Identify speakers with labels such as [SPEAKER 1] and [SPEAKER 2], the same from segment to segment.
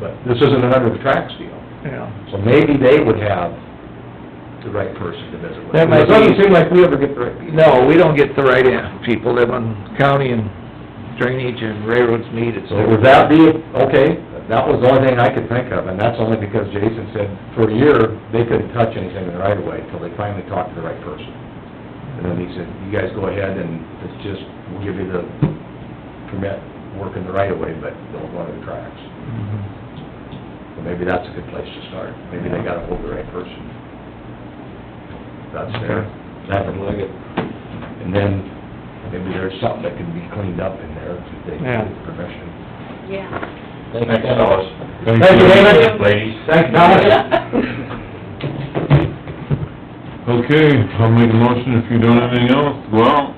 [SPEAKER 1] But this isn't an under the tracks deal,
[SPEAKER 2] yeah.
[SPEAKER 1] so maybe they would have the right person to visit with.
[SPEAKER 2] That might
[SPEAKER 1] It doesn't
[SPEAKER 2] be-
[SPEAKER 1] seem like we ever get the right people.
[SPEAKER 2] No, we don't get the right in, people live on county and drainage and railroads meet, it's.
[SPEAKER 1] So would that be, okay, that was the only thing I could think of, and that's only because Jason said for a year, they couldn't touch anything in the right of way until they finally talked to the right person. And then he said, you guys go ahead and it's just, we'll give you the permit, work in the right of way, but don't go under the tracks. So maybe that's a good place to start, maybe they got hold of the right person. That's fair. Nothing like it. And then, maybe there's something that can be cleaned up in there if they
[SPEAKER 2] Yeah.
[SPEAKER 1] get permission.
[SPEAKER 3] Yeah.
[SPEAKER 4] Thanks, fellas.
[SPEAKER 1] Thank you, David.
[SPEAKER 4] Ladies.
[SPEAKER 1] Thanks, Thomas.
[SPEAKER 5] Okay, I'll make a motion if you don't have anything else, go out,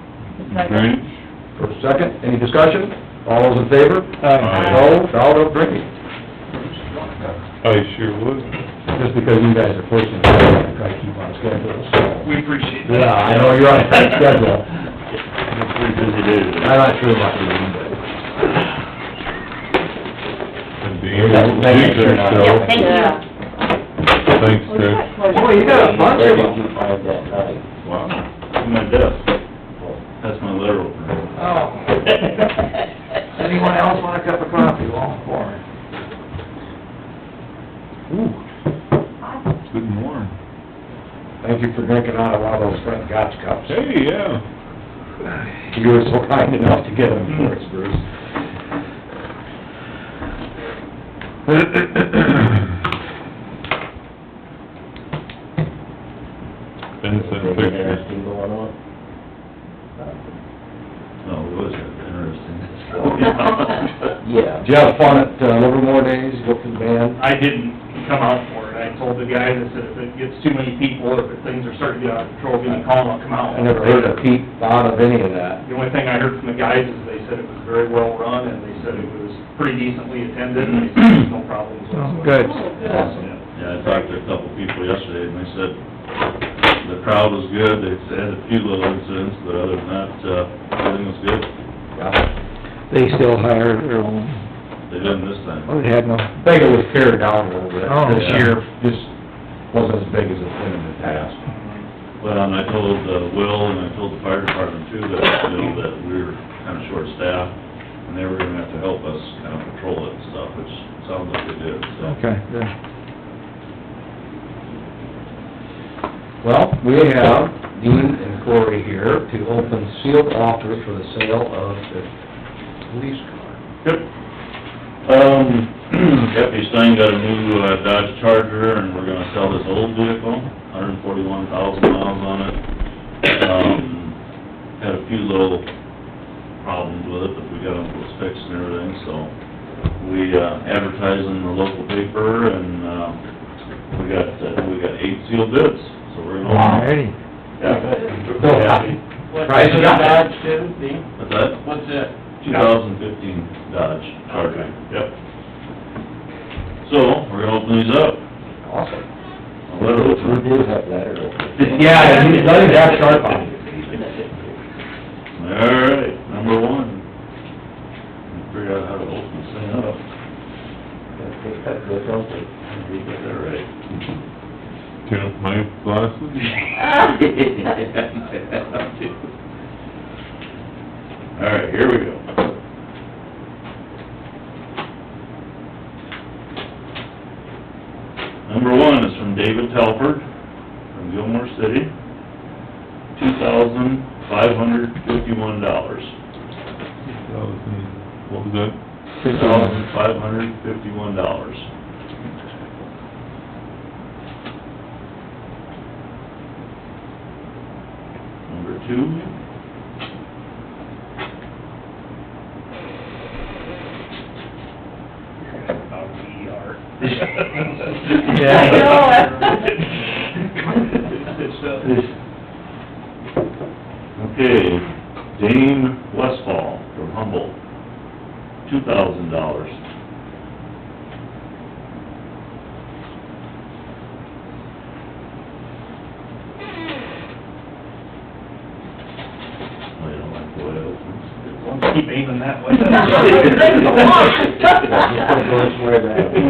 [SPEAKER 5] drainage.
[SPEAKER 1] For a second, any discussion? All those in favor?
[SPEAKER 5] Aye.
[SPEAKER 1] No, all no drinking.
[SPEAKER 5] I sure would.
[SPEAKER 1] Just because you guys are pushing, I try to keep on schedule, so.
[SPEAKER 4] We appreciate
[SPEAKER 1] Yeah, I know you're on a tight schedule.
[SPEAKER 4] Pretty busy day today.
[SPEAKER 1] I'm not sure about you,
[SPEAKER 5] And
[SPEAKER 1] but.
[SPEAKER 5] being able to teach yourself.
[SPEAKER 3] Thank you.
[SPEAKER 5] Thanks, Trish.
[SPEAKER 1] Boy, you got a bunch of
[SPEAKER 4] Where did
[SPEAKER 1] them.
[SPEAKER 4] you find that knife?
[SPEAKER 5] Wow.
[SPEAKER 4] In my desk. That's my letter opener.
[SPEAKER 2] Oh. Anyone else want a cup of coffee, long form?
[SPEAKER 5] Oh, Good and warm.
[SPEAKER 1] Thank you for drinking out of one of those Frank Gotch cups.
[SPEAKER 5] Hey, yeah.
[SPEAKER 1] You were so kind enough to get them for us, Bruce.
[SPEAKER 5] Ben sent
[SPEAKER 4] Anything
[SPEAKER 5] pictures.
[SPEAKER 4] interesting going on? No, it was interesting.
[SPEAKER 1] Yeah. Did you have fun at uh, Livermore Days, You go to the band?
[SPEAKER 6] I didn't come out for it. I told the guy that said if it gets too many people, if things are starting to get out of control, give me a call and I'll come out.
[SPEAKER 1] I never heard a peep out of any of that.
[SPEAKER 6] The only thing I heard from the guys is they said it was very well run and they said it was pretty decently attended and they said there's no problems
[SPEAKER 2] Oh,
[SPEAKER 6] whatsoever.
[SPEAKER 2] good.
[SPEAKER 1] Awesome.
[SPEAKER 4] Yeah, I talked to a couple people yesterday, and they said the crowd was good, they had a few little incidents, but other than that, uh, everything was good.
[SPEAKER 1] Yeah.
[SPEAKER 2] They still hire their own,
[SPEAKER 4] They didn't this time.
[SPEAKER 2] oh, they had no,
[SPEAKER 1] I think it was pared down a little bit
[SPEAKER 2] Oh,
[SPEAKER 1] this
[SPEAKER 4] yeah.
[SPEAKER 1] year, just wasn't as big as it's been in the past.
[SPEAKER 4] But, um, I told, uh, Will, and I told the fire department too, that, you know, that we were kinda short-staffed, and they were gonna have to help us kinda patrol it and stuff, which sounds like they did, so.
[SPEAKER 2] okay, good.
[SPEAKER 1] Well, we have Dean and Corey here to open sealed offers for the sale of the police car.
[SPEAKER 4] Yep. Um, Deputy Stein got a new uh, Dodge Charger, and we're gonna sell this old vehicle, hundred and forty-one thousand miles on it. Um, had a few little problems with it, but we got them fixed and everything, so we uh, advertised in the local paper, and, uh, we got, uh, we got eight sealed bids, so we're gonna...
[SPEAKER 2] Alrighty.
[SPEAKER 4] Yeah, we're happy.
[SPEAKER 1] Price is up.
[SPEAKER 4] What's that? What's that? Two thousand fifteen Dodge Charger. Yep. So, we're gonna open these up.
[SPEAKER 1] Awesome.
[SPEAKER 4] I'll let her open.
[SPEAKER 1] have that Yeah, and he's letting that sharp on
[SPEAKER 4] All right, number one. Figure out how to open this thing up. You got that right.
[SPEAKER 5] Turn up my glasses.
[SPEAKER 4] All right, here we go. Number one is from David Telford, from Gilmore City, two thousand five hundred fifty-one dollars.
[SPEAKER 5] Thousand- What was that?
[SPEAKER 4] Two thousand five hundred fifty-one dollars. Number two.
[SPEAKER 2] Yeah.
[SPEAKER 4] Okay, Dane Westfall from Humboldt, two thousand dollars. I don't like the way it opens. Oh,
[SPEAKER 6] Keep aiming that way.
[SPEAKER 3] It's a lot.
[SPEAKER 1] Just don't go anywhere that-